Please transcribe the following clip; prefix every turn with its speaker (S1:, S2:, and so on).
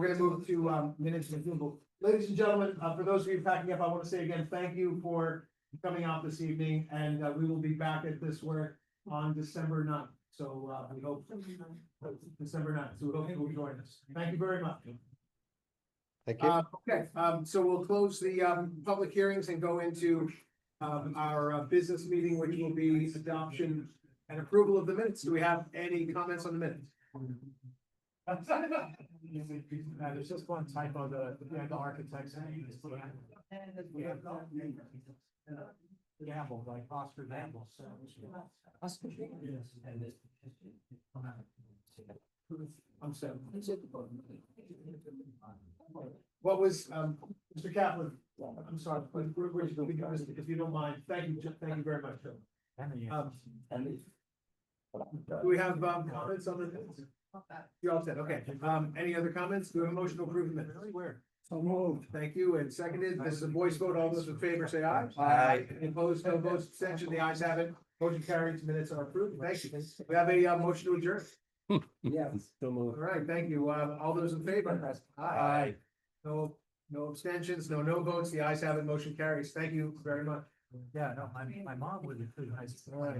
S1: We're gonna move to um minutes and approval. Ladies and gentlemen, uh for those of you packing up, I want to say again, thank you for coming out this evening and uh we will be back at this work on December 9th. So uh we hope December 9th. so we hope you'll join us. Thank you very much.
S2: Thank you.
S1: Uh, okay, um, so we'll close the, um, public hearings and go into, um, our uh, business meeting, which will be adoption and approval of the minutes. Do we have any comments on the minutes? Uh, There's just one typo, the, yeah, the architect's name is. Gamble, like Oscar Gamble, so. Oscar? Yes. I'm sorry. What was, um, Mr. Kaplan, I'm sorry, but we're- we're- we got this, if you don't mind, thank you, ju- thank you very much. Phil. Um, Do we have, um, comments on the minutes? You're all set, okay. Um, any other comments? Do we have a motion to approve the minutes? Where? So moved. Thank you, and seconded, this is a voice vote, all those in favor say aye.
S2: Aye.
S1: Any Opposed, no votes, abstention, the ayes have it. Motion carries, minutes are approved, thank you. We have a, uh, motion to adjourn.
S2: Yes. So
S1: All
S2: moved.
S1: right, thank you. Uh, all those in favor?
S2: Aye.
S1: No, no abstentions, no no votes. The ayes have it. Motion carries. Thank you very much.
S3: Yeah, no, my, my mom was a food.
S1: All right.